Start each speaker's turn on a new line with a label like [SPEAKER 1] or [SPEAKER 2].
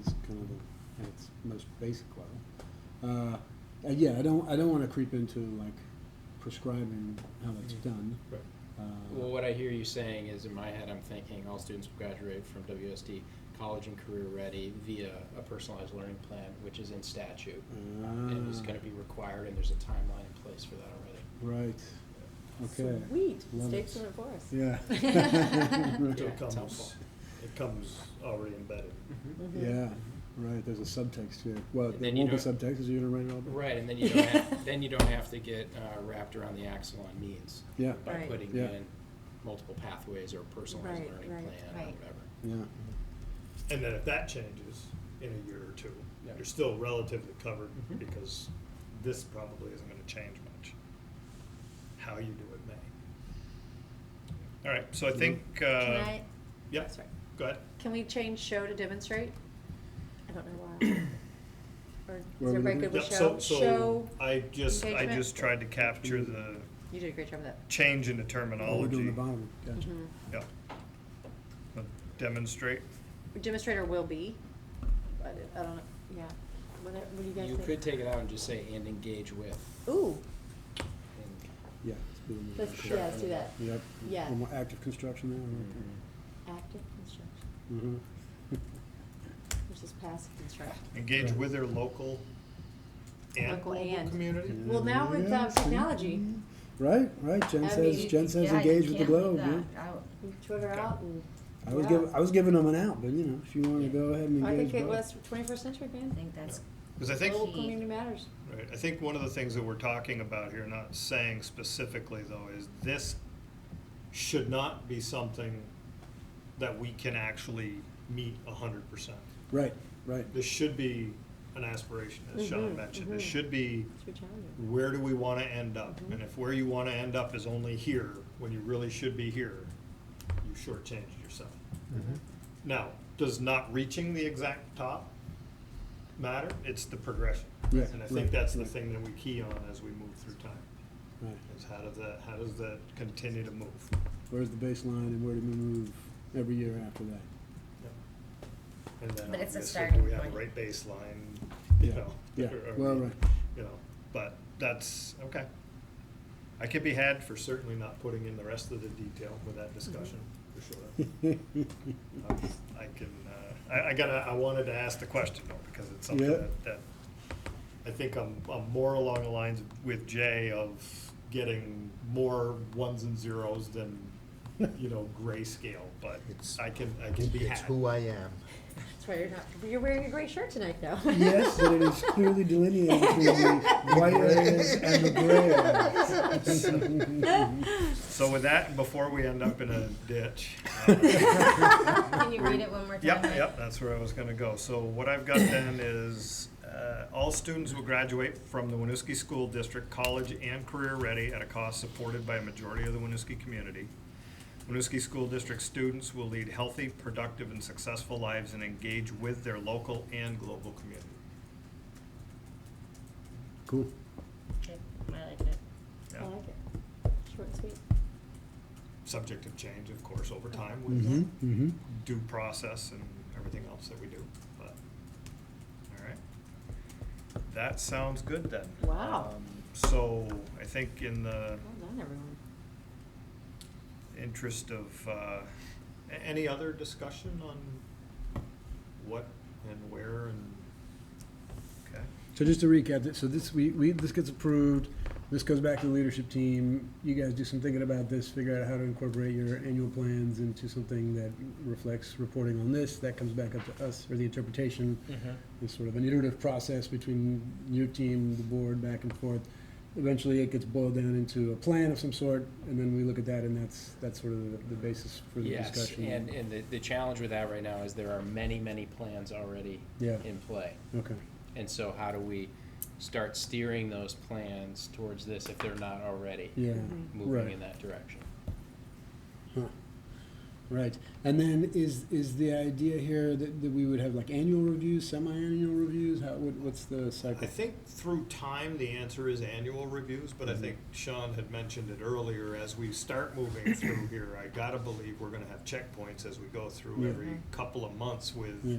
[SPEAKER 1] is kind of the, at its most basic level. Uh, uh, yeah, I don't, I don't wanna creep into like prescribing how that's
[SPEAKER 2] Mhm.
[SPEAKER 1] done.
[SPEAKER 2] Right.
[SPEAKER 1] Uh,
[SPEAKER 2] Well, what I hear you saying is, in my head, I'm thinking all students will graduate from WSD college and career ready via a personalized learning plan, which is in statute and is
[SPEAKER 1] ah,
[SPEAKER 2] going to be required, and there's a timeline in place for that already.
[SPEAKER 1] Right, okay,
[SPEAKER 3] Sweet,
[SPEAKER 1] Love it.
[SPEAKER 3] state's doing it for us.
[SPEAKER 1] yeah.
[SPEAKER 2] Yeah,
[SPEAKER 4] So it
[SPEAKER 2] it's helpful. Mm-hmm.
[SPEAKER 4] comes, it comes already embedded.
[SPEAKER 3] Mhm.
[SPEAKER 5] Mm-hmm.
[SPEAKER 1] Yeah, right, there's a subtext here. Well,
[SPEAKER 2] And
[SPEAKER 1] there
[SPEAKER 2] then you
[SPEAKER 1] won't be
[SPEAKER 2] don't-
[SPEAKER 1] subtext, because you're gonna write it all down.
[SPEAKER 2] Right, and then you don't have, then you don't have to get uh, wrapped around the axle on means
[SPEAKER 1] Yeah,
[SPEAKER 2] by
[SPEAKER 3] Right.
[SPEAKER 2] putting
[SPEAKER 1] Yeah.
[SPEAKER 2] in multiple pathways or a personalized
[SPEAKER 3] Right,
[SPEAKER 2] learning
[SPEAKER 3] right,
[SPEAKER 2] plan or
[SPEAKER 5] right.
[SPEAKER 2] whatever.
[SPEAKER 1] yeah,
[SPEAKER 4] And then if that changes in a year or two,
[SPEAKER 2] Yeah.
[SPEAKER 4] you're still relatively covered
[SPEAKER 2] Mhm.
[SPEAKER 4] because this probably isn't gonna change much. How you do it may. All right, so I think,
[SPEAKER 5] Can
[SPEAKER 4] uh,
[SPEAKER 5] I,
[SPEAKER 4] yeah,
[SPEAKER 5] sorry,
[SPEAKER 4] go ahead.
[SPEAKER 5] can we change show to demonstrate? I don't know why. Or is
[SPEAKER 1] Where are we
[SPEAKER 5] everybody
[SPEAKER 1] looking?
[SPEAKER 5] good with
[SPEAKER 4] Yeah, so-
[SPEAKER 5] show?
[SPEAKER 4] so
[SPEAKER 5] Show,
[SPEAKER 4] I just, I
[SPEAKER 5] engagement?
[SPEAKER 4] just tried to capture the
[SPEAKER 5] you did a great job with that.
[SPEAKER 4] change in the
[SPEAKER 1] oh, we're doing the
[SPEAKER 4] terminology.
[SPEAKER 1] bottom, gotcha.
[SPEAKER 5] Mhm.
[SPEAKER 4] Yeah. Demonstrate.
[SPEAKER 5] Demonstrator will be, but I don't know, yeah. What, do- what do you guys
[SPEAKER 2] You
[SPEAKER 5] think?
[SPEAKER 2] could take it out and just say, and engage with.
[SPEAKER 5] Ooh,
[SPEAKER 2] and-
[SPEAKER 1] Yeah. it's being moved.
[SPEAKER 5] let's, yeah, let's do that.
[SPEAKER 1] Yep.
[SPEAKER 5] Yeah.
[SPEAKER 1] One more Active construction
[SPEAKER 4] Mm-hmm.
[SPEAKER 1] there.
[SPEAKER 5] Active construction
[SPEAKER 1] Mm-hmm.
[SPEAKER 5] versus passive construction.
[SPEAKER 4] Engage with their local and
[SPEAKER 5] Local
[SPEAKER 4] global
[SPEAKER 5] and.
[SPEAKER 4] community.
[SPEAKER 1] Mm-hmm.
[SPEAKER 5] Well, now with
[SPEAKER 1] Yeah,
[SPEAKER 5] um,
[SPEAKER 1] see?
[SPEAKER 5] technology,
[SPEAKER 1] Right, right, Jen
[SPEAKER 5] I
[SPEAKER 1] says,
[SPEAKER 5] mean,
[SPEAKER 1] Jen says engage with the globe, yeah.
[SPEAKER 5] Twitter out and,
[SPEAKER 1] I was
[SPEAKER 5] Yeah.
[SPEAKER 1] giving, I was giving them an out, but you know, if you wanna go ahead and
[SPEAKER 5] I
[SPEAKER 1] engage.
[SPEAKER 5] think it
[SPEAKER 1] both.
[SPEAKER 5] was twenty-first century, man.
[SPEAKER 3] think that's,
[SPEAKER 4] Because I think,
[SPEAKER 5] Local community matters.
[SPEAKER 4] right, I think one of the things that we're talking about here, not saying specifically though, is this should not be something that we can actually meet a hundred percent.
[SPEAKER 1] Right, right,
[SPEAKER 4] This should be an aspiration, as Sean
[SPEAKER 5] Mhm,
[SPEAKER 4] mentioned. This
[SPEAKER 5] mhm.
[SPEAKER 4] should be,
[SPEAKER 5] It's your challenge.
[SPEAKER 4] where do we want to end up? And if where you want to end up is only here, when you really should be here, you shortchanged yourself.
[SPEAKER 1] Mm-hmm.
[SPEAKER 4] Now, does not reaching the exact top matter? It's the progression.
[SPEAKER 1] Yeah,
[SPEAKER 4] And I
[SPEAKER 1] right,
[SPEAKER 4] think that's the
[SPEAKER 1] right.
[SPEAKER 4] thing that we key on as we move through time,
[SPEAKER 1] right.
[SPEAKER 4] is how does that, how does that continue to move?
[SPEAKER 1] Where's the baseline and where do we move every year after that?
[SPEAKER 4] And then
[SPEAKER 3] But it's a
[SPEAKER 4] obviously, do
[SPEAKER 3] starting
[SPEAKER 4] we have a
[SPEAKER 3] point.
[SPEAKER 4] right baseline, you
[SPEAKER 1] Yeah,
[SPEAKER 4] know?
[SPEAKER 1] yeah,
[SPEAKER 4] or are
[SPEAKER 1] well,
[SPEAKER 4] we-
[SPEAKER 1] right.
[SPEAKER 4] You know, but that's, okay. I could be had for certainly not putting in the rest of the detail with that discussion, for sure. Um, I can, uh, I, I gotta, I wanted to ask the question though, because it's something
[SPEAKER 1] Yeah.
[SPEAKER 4] that, that, I think I'm, I'm more along the lines with Jay of getting more ones and zeros than, you know, grayscale, but
[SPEAKER 6] It's-
[SPEAKER 4] I can, I can be
[SPEAKER 6] It's
[SPEAKER 4] had.
[SPEAKER 6] who I am.
[SPEAKER 5] That's why you're not, you're wearing a gray shirt tonight though.
[SPEAKER 1] Yes, but it is clearly delineated between the white areas and the gray areas.
[SPEAKER 4] So with that, before we end up in a ditch, uh,
[SPEAKER 3] can you read it one more time?
[SPEAKER 4] Yep,
[SPEAKER 3] Mike?
[SPEAKER 4] yep, that's where I was gonna go. So what I've got then is, uh, all students will graduate from the Winooski School District, college and career ready at a cost supported by a majority of the Winooski community. Winooski School District students will lead healthy, productive, and successful lives and engage with their local and global community.
[SPEAKER 1] Cool.
[SPEAKER 3] Okay, I liked it.
[SPEAKER 5] I
[SPEAKER 4] Yeah.
[SPEAKER 5] like it. Short and sweet.
[SPEAKER 4] Subject of change, of course, over time
[SPEAKER 1] Mm-hmm,
[SPEAKER 4] with
[SPEAKER 1] mm-hmm.
[SPEAKER 4] due process and everything else that we do, but, all right. That sounds good then.
[SPEAKER 5] Wow.
[SPEAKER 4] Um, So I think in the
[SPEAKER 5] Well done, everyone.
[SPEAKER 4] interest of, uh, a- any other discussion on what and where and, okay,
[SPEAKER 1] So just to recap, th- so this, we, we, this gets approved, this goes back to the leadership team, you guys do some thinking about this, figure out how to incorporate your annual plans into something that reflects reporting on this, that comes back up to us for the interpretation. It's sort of an iterative process between your team, the board, back and forth. Eventually, it gets boiled down into a plan of some sort, and then we look at that, and that's, that's sort of the- the basis for the
[SPEAKER 2] Yes,
[SPEAKER 1] discussion.
[SPEAKER 2] and, and the, the challenge with that right now is there are many, many plans already
[SPEAKER 1] Yeah.
[SPEAKER 2] in play.
[SPEAKER 1] Okay,
[SPEAKER 2] And so how do we start steering those plans towards this if they're not already
[SPEAKER 1] yeah,
[SPEAKER 5] Mhm.
[SPEAKER 2] moving
[SPEAKER 1] Right.
[SPEAKER 2] in that direction?
[SPEAKER 1] Huh. Right, and then is, is the idea here that, that we would have like annual reviews, semi-annual reviews, how, what, what's the
[SPEAKER 4] I
[SPEAKER 1] cycle?
[SPEAKER 4] think through time, the answer is annual reviews, but
[SPEAKER 1] Mm-hmm.
[SPEAKER 4] I think Sean had mentioned it earlier, as we start moving through here, I gotta believe we're gonna have checkpoints as we go through
[SPEAKER 1] Yeah.
[SPEAKER 4] every couple of months with
[SPEAKER 1] Yeah,